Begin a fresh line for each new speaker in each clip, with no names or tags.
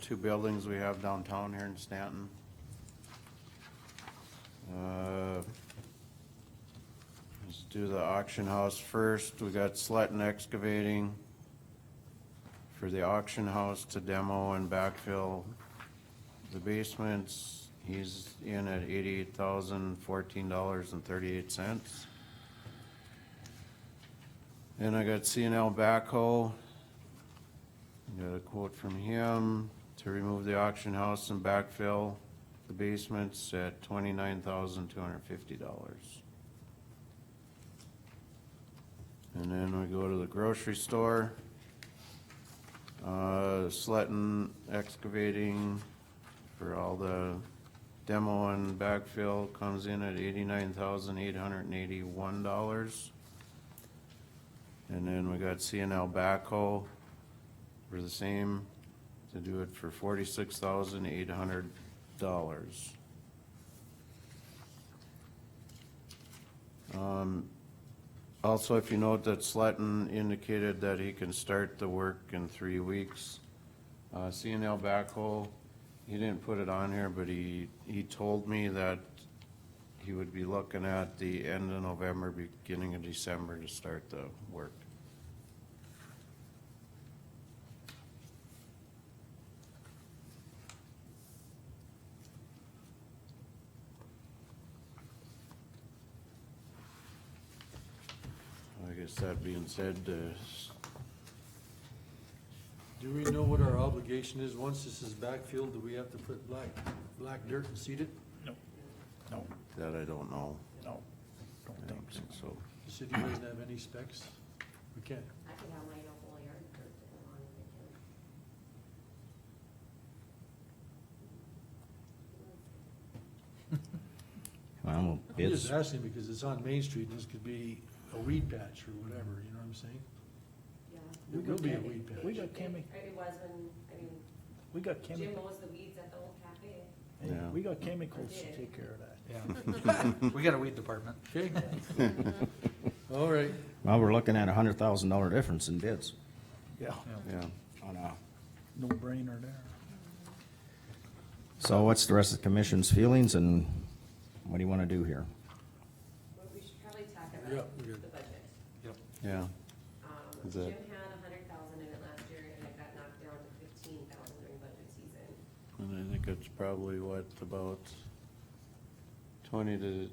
two buildings we have downtown here in Stanton. Uh, Let's do the auction house first. We got Sletten Excavating for the auction house to demo and backfill the basements. He's in at eighty-eight thousand, fourteen dollars and thirty-eight cents. Then I got C and L Backhoe. Got a quote from him to remove the auction house and backfill the basements at twenty-nine thousand two hundred fifty dollars. And then we go to the grocery store. Uh, Sletten excavating for all the demo and backfill comes in at eighty-nine thousand eight hundred and eighty-one dollars. And then we got CNL backhoe for the same, to do it for forty-six thousand eight hundred dollars. Um, Also, if you note that Sletten indicated that he can start the work in three weeks. Uh, CNL backhoe, he didn't put it on here, but he, he told me that he would be looking at the end of November, beginning of December to start the work. I guess that being said, uh,
Do we know what our obligation is? Once this is backfilled, do we have to put black, black dirt and seed it?
No, no,
that I don't know.
no,
I
don't think
don't
so.
think so.
The city doesn't have any specs? We can't.
I could have my whole yard dirt that I wanted to do.
Well,
I'm
it's,
just asking because it's on Main Street and this could be a weed patch or whatever, you know what I'm saying?
Yeah.
It will be a weed
We
patch.
got Kimmy,
It it was when, I mean,
we got
Jim
chemicals,
mows the weeds at the old cafe.
Yeah.
we got chemicals to take care of that.
Yeah. We got a weed department.
Okay? All right,
well, we're looking at a hundred thousand dollar difference in bids
Yeah,
Yeah.
on uh, a,
no brainer there.
so what's the rest of the commission's feelings and what do you wanna do here?
But we should probably talk
Yeah,
about
we got-
the budget.
Yep.
Yeah,
Um,
Is that-
Jim had a hundred thousand in it last year and it got knocked down to fifteen thousand during budget season.
and I think it's probably what, about twenty to,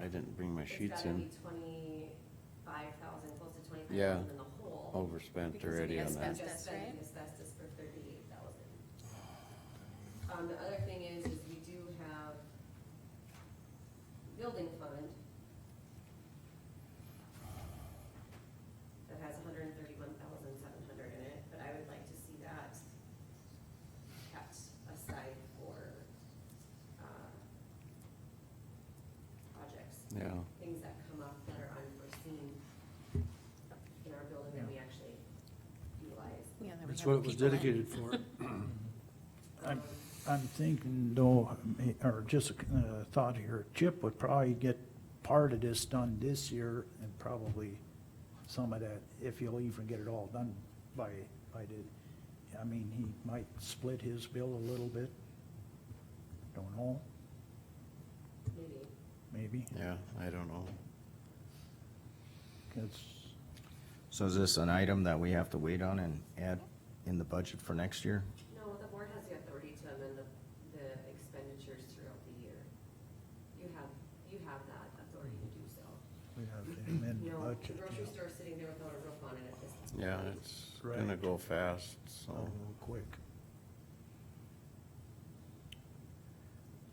I didn't bring my sheets
It's gotta
in,
be twenty-five thousand, close to twenty-five
Yeah. Oh,
thousand in the hole.
overspent
because we
already on
just
that.
spent the asbestos for thirty-eight thousand. Um, the other thing is, is we do have building fund that has hundred and thirty-one thousand seven hundred in it, but I would like to see that kept aside for, uh, projects
Yeah,
things that come up that are unforeseen in our building that we actually utilize.
that's what it was dedicated for.
Um,
I'm, I'm thinking though, or just a uh, thought here, Chip would probably get part of this done this year and probably some of that, if he'll even get it all done by, by the, I mean, he might split his bill a little bit. Don't know,
Maybe,
maybe,
yeah, I don't know.
it's,
So is this an item that we have to wait on and add in the budget for next year?
no, the board has the authority to amend the, the expenditures throughout the year. You have, you have that authority to do so.
We have to amend
You
the
know, the
budget.
grocery store is sitting there without a roof on it at this point.
Yeah, it's gonna
Right.
go fast,
So
Uh-huh.
so,
quick.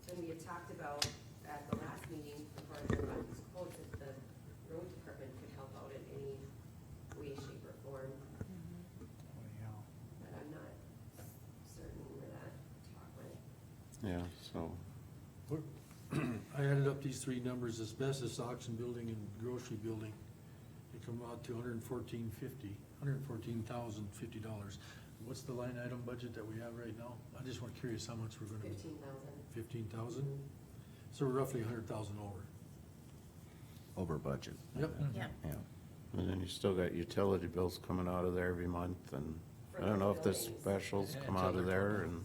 And we had talked about at the last meeting, before I got these quotes, that the road department could help out in any way, shape, or form, but I'm not certain where that talk went.
yeah, so,
I added up these three numbers, asbestos, auction building and grocery building. They come out to hundred and fourteen fifty, hundred and fourteen thousand fifty dollars. What's the line item budget that we have right now? I just want curious how much we're gonna,
Fifteen thousand.
fifteen thousand? So we're roughly a hundred thousand over.
Over budget,
Yep.
yeah.
and then you still got utility bills coming out of there every month and, I don't know if the
buildings.
specials
Yeah,
come
until
out of
they're
there
open.
and.